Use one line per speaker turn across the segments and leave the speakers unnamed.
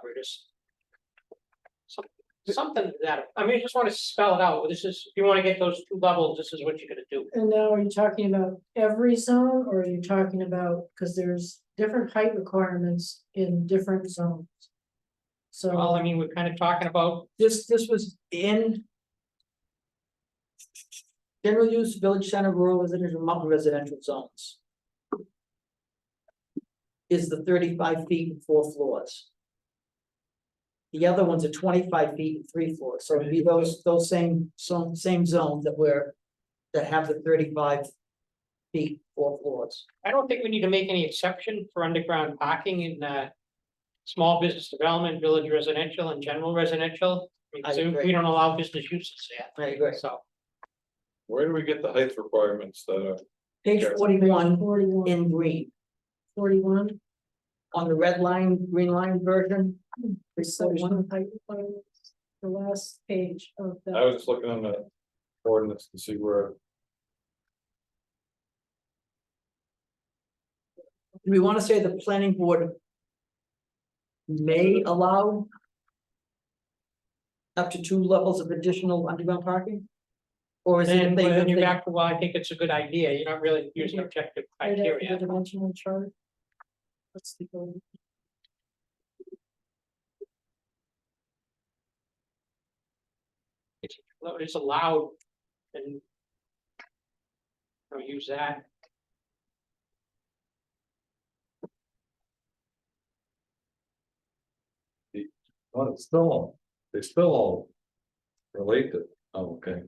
operators. Some- Something to that, I mean, I just wanna spell it out, this is, if you wanna get those two levels, this is what you're gonna do.
And now are you talking about every zone or are you talking about, because there's different height requirements in different zones?
Well,
So
I mean, we're kinda talking about,
This, this was in. General use, village center, rural residential, mountain residential zones. Is the thirty-five feet and four floors. The other ones are twenty-five feet and three floors, so it'd be those, those same, so same zones that were, that have the thirty-five. Feet, four floors.
I don't think we need to make any exception for underground parking in, uh. Small business development, village residential and general residential,
I
because we
agree.
don't allow business uses
I agree.
there, so.
Where do we get the height requirements that are?
Page
Sure.
forty-one
forty-one,
in green,
forty-one,
on the red line, green line version. page 41.
section height requirements, the last page of
I
that.
was just looking on the ordinance to see where,
Do we wanna say the planning board? May allow? Up to two levels of additional underground parking? Or is it?
Then,
if they-
then
if
you're
they- Mm-hmm.
back to, well, I think it's a good idea, you're not really using objective
Right after the
criteria.
dimensional chart. Let's see. go.
Well, It's allowed and. I'll use that.
oh, it's still, all- they still all relate to, oh, okay.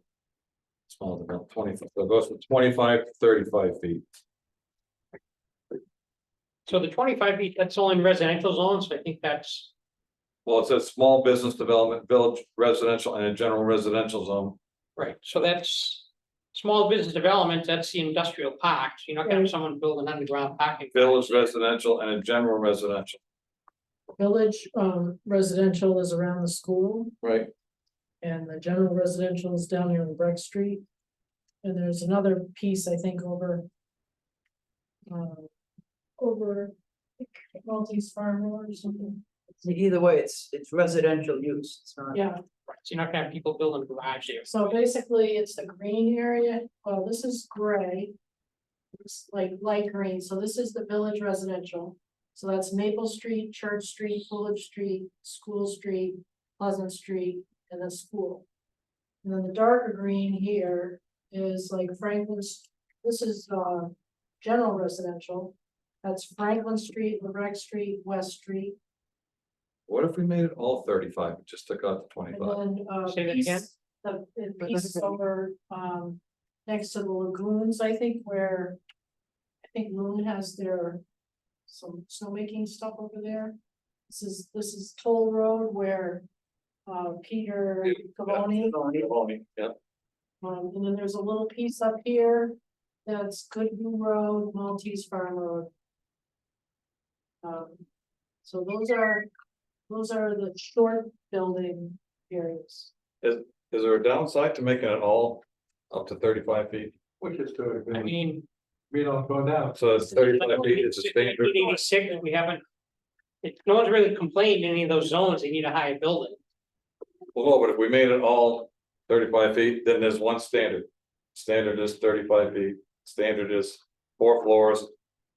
Small about twenty, so it goes from twenty-five to thirty-five feet.
So the twenty-five feet, that's all in residential zones, so I think that's,
Well, it says small business development, village residential and a general residential zone.
right, so that's. Small business development, that's the industrial parks, you're not gonna have
Right.
someone build an underground parking.
Village residential and a general residential.
Village, um, residential is around the school.
Right.
And the general residential is down here on Breck Street. And there's another piece, I think, over. uh, Over Maltese Farm Road or something,
Either way, it's, it's residential use, it's not.
yeah,
Right, So you're not gonna have people building garage there.
so basically it's the green area, well, this is gray. It's like light green, so this is the village residential. So that's Maple Street, Church Street, Fuller Street, School Street, Pleasant Street, and then school. And then the darker green here is like Franklin's, this is uh general residential. That's Franklin Street, Lorette Street, West Street,
What if we made it all thirty-five, and just took out the
and
twenty-five?
then uh
Say that again?
piece, the the
But
piece
that's-
over um next to the lagoons, I think, where. I think Loon has their some snowmaking stuff over there. This is, this is Toll Road where uh Peter
Yeah.
Cavoni.
Yeah.
Um, and then there's a little piece up here that's Goodview Road, Maltese Farm Road. Um, so those are, those are the short building areas.
Is there a downside to making it all up to thirty-five feet?
Which is to,
I mean.
we don't go down.
So it's thirty-five feet, it's a standard.
Eighty-six, we haven't. It, no one's really complained in any of those zones, they need a higher building.
Well, no, but if we made it all thirty-five feet, then there's one standard. Standard is thirty-five feet, standard is four floors.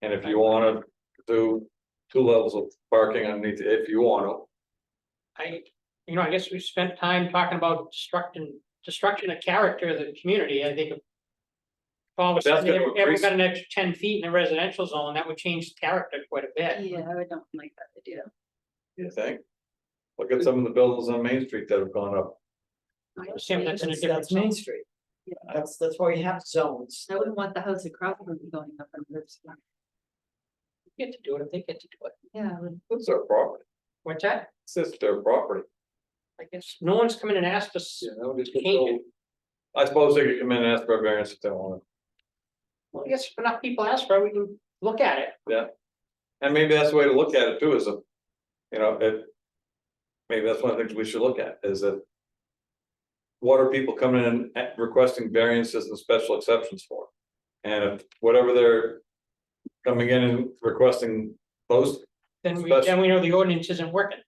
And if you wanna do two levels of parking underneath, if you wanna,
I, you know, I guess we spent time talking about destructing, destruction of character of the community, I think. if All of a
But that's
sudden,
gonna
every- everyone
increase-
got an extra ten feet in a residential zone, that would change the character quite a bit.
Yeah, I don't like that idea.
you think? Look at some of the buildings on Main Street that have gone up.
I assume that's in a
That's,
different
that's
zone.
Main Street. That's, that's why you have zones.
I wouldn't want the house across from me going up in River Street.
You Get to do it, if they get to do it.
Yeah, I would-
It's their property,
What's that?
it's just their property.
I guess, no one's coming and asked us, change it.
I suppose they could come in and ask for a variance if they wanna.
Well, I guess if enough people ask for it, we can look at it.
And maybe that's the way to look at it too, is if, you know, if. Maybe that's one of the things we should look at, is that. What are people coming in and requesting variances and special exceptions for? And if whatever they're. Coming in and requesting those,
Then we,
Especially-
then we know the ordinance isn't working.